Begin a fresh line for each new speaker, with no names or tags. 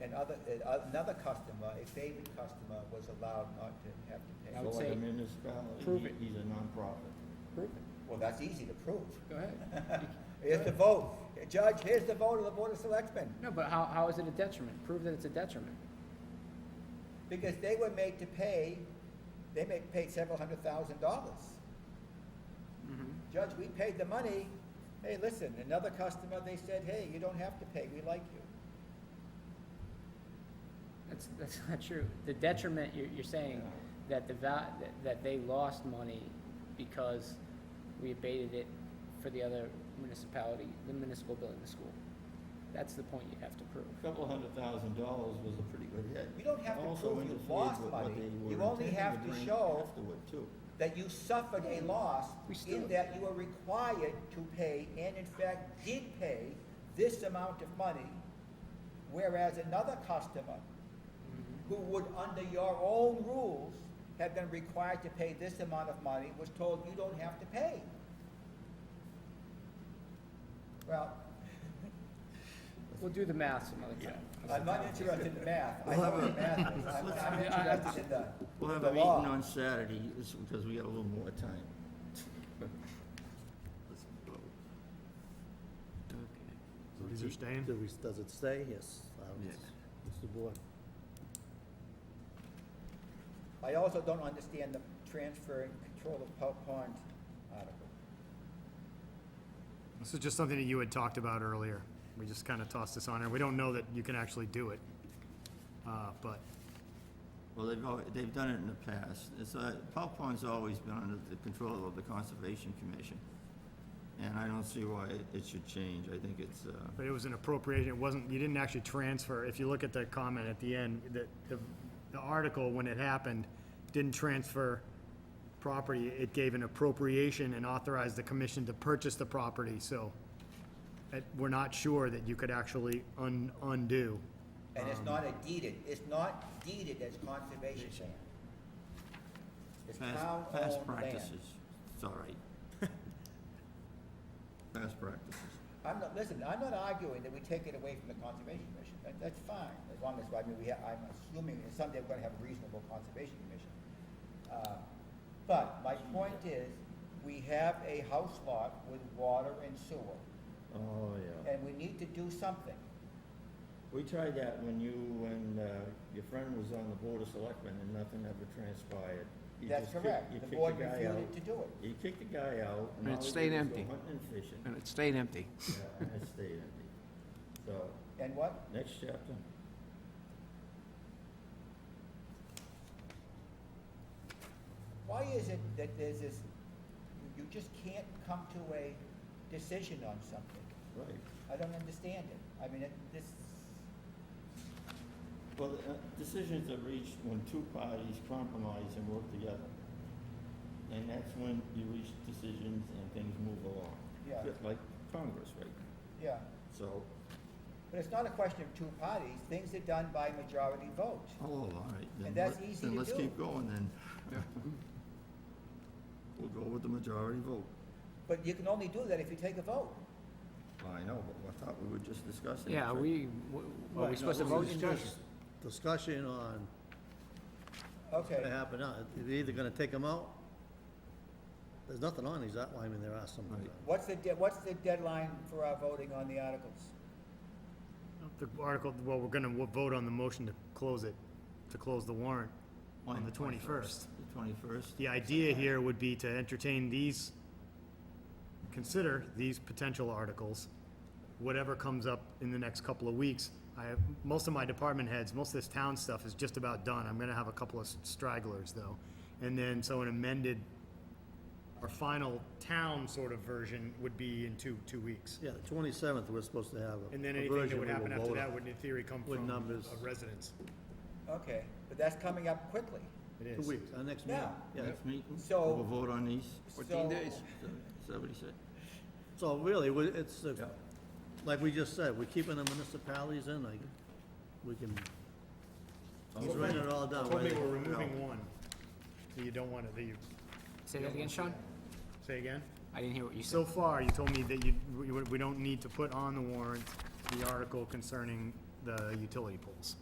And other, uh, another customer, a favored customer, was allowed not to have to pay.
I would
So like
say
a municipality,
prove
he-
it.
he's a nonprofit.
Prove it.
Well, that's easy to prove.
Go ahead.
Here's the vote. Judge, here's the vote of the Board of Selectmen,
No, but how, how is it a detriment? Prove that it's a detriment.
because they were made to pay, they made, paid several hundred thousand dollars. Judge, we paid the money. Hey, listen, another customer, they said, hey, you don't have to pay, we like you.
That's, that's not true. The detriment, you're, you're saying that the val, that- that they lost money because we abated it for the other municipality, the municipal building, the school. That's the point you have to prove.
A Couple hundred thousand dollars was a pretty good hit.
You don't have to
Also
prove you
interfered
lost
with what
money.
they were
You only
intending to
have to
bring
show-
Afterward, too.
that you suffered a loss
We still-
in that you are required to pay, and in fact did pay, this amount of money, whereas another customer
Mm-hmm.
who would, under your own rules, have been required to pay this amount of money, was told you don't have to pay. Well,
We'll do the math some other time.
I'm not interested in math. I
We'll
know
have
what
a-
math is. I'm I'm interested in the,
We'll have
the
a meeting
law.
on Saturday, this- because we got a little more time. Let's vote.
So these are staying?
Do we, does it stay? Yes. Um,
Yeah.
It's the board.
I also don't understand the transfer and control of Pell Pond article.
This is just something that you had talked about earlier. We just kind of tossed this on, and we don't know that you can actually do it. Uh, But
Well, they've, al- they've done it in the past. It's, uh, Paw Pond's always been under the control of the Conservation Commission. And I don't see why it- it should change. I think it's, uh,
But it was an appropriation, it wasn't, you didn't actually transfer, if you look at the comment at the end, the, the, the article, when it happened, didn't transfer property, it gave an appropriation and authorized the commission to purchase the property, so it, we're not sure that you could actually un, undo.
And
Um,
it's not a deeded, it's not deeded as conservation land. It's
past, past
town-owned land.
practices. It's all right. Past practices.
I'm not, listen, I'm not arguing that we take it away from the Conservation Commission, that, that's fine, as long as, I mean, we have, I'm assuming that someday we're gonna have a reasonable Conservation Commission. Uh, But my point is, we have a house lot with water and sewer,
Oh, yeah.
and we need to do something.
We tried that when you and, uh, your friend was on the Board of Selectmen and nothing ever transpired. You
That's
just kick-
correct,
you
the
kick
board
guy
refused
out.
to do it.
You kicked the guy out.
And it
all he did
stayed
was go
empty.
Hunting and fishing.
and it stayed empty.
Yeah, and it stayed empty. So,
And what?
next chapter.
Why is it that there's this, you just can't come to a decision on something?
Right.
I don't understand it. I mean, it, this,
Well, uh, decisions are reached when two parties compromise and work together. And that's when you reach decisions and things move along.
Yeah.
Just Like Congress right now.
yeah,
So,
but it's not a question of two parties. Things are done by majority vote.
oh, all right. then
And that's
let-
easy
Then
to
let's
do.
keep going then. We'll go with the majority vote.
But you can only do that if you take a vote.
Well, I know, but I thought we were just discussing. it,
Yeah,
so-
we, are we supposed to vote in this?
Discussion on what
Okay,
happened, now. they're either gonna take them out, there's nothing on these, that- well, I mean, there are some.
Right.
what's the, de- what's the deadline for our voting on the articles?
The article, well, we're gonna wo- vote on the motion to close it, to close the warrant on the twenty-first.
The twenty-first.
The idea here would be to entertain these, consider these potential articles, whatever comes up in the next couple of weeks. I have, most of my department heads, most of this town stuff is just about done. I'm gonna have a couple of stragglers though. And then, so an amended, our final town sort of version would be in two, two weeks.
Yeah, the twenty-seventh, we're supposed to have a.
And then
a
anything that
version
would
we will
happen after
vote
that
on.
would in theory come
With
from
numbers.
a residence.
Okay, but that's coming up quickly.
It
Two
is.
weeks, our next meeting,
Yeah.
yeah.
Next meeting.
So-
We'll vote on these.
14
So-
days.
Somebody said.
So really, we- it's, uh,
Yeah.
like we just said, we're keeping the municipalities in, like, we can, he's writing it all down.
Told me
right?
we're removing one, that you don't wanna, that you,
Say that again, Sean?
say again?
I didn't hear what you said.
So far, you told me that you, we- we don't need to put on the warrant the article concerning the utility poles.